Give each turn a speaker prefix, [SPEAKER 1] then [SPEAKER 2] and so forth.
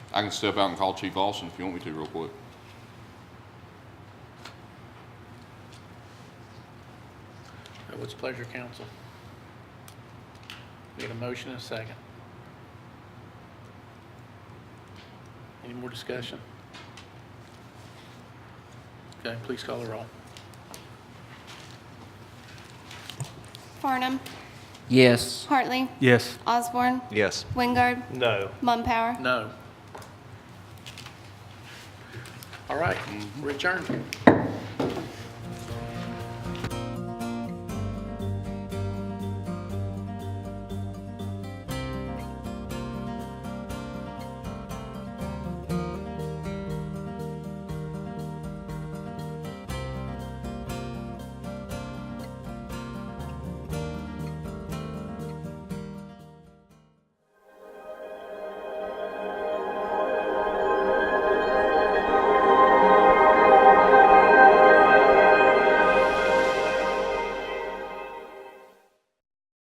[SPEAKER 1] I can step out and call Chief Lawson if you want me to real quick.
[SPEAKER 2] Uh, What's pleasure, council? Need a motion and a second. Any more discussion? Okay, please call the roll.
[SPEAKER 3] Farnum,
[SPEAKER 4] Yes.
[SPEAKER 3] Hartley,
[SPEAKER 5] Yes.
[SPEAKER 3] Osborne,
[SPEAKER 6] Yes.
[SPEAKER 3] Wingard,
[SPEAKER 7] No.
[SPEAKER 3] Mumpower.
[SPEAKER 2] No. All right, we're adjourned.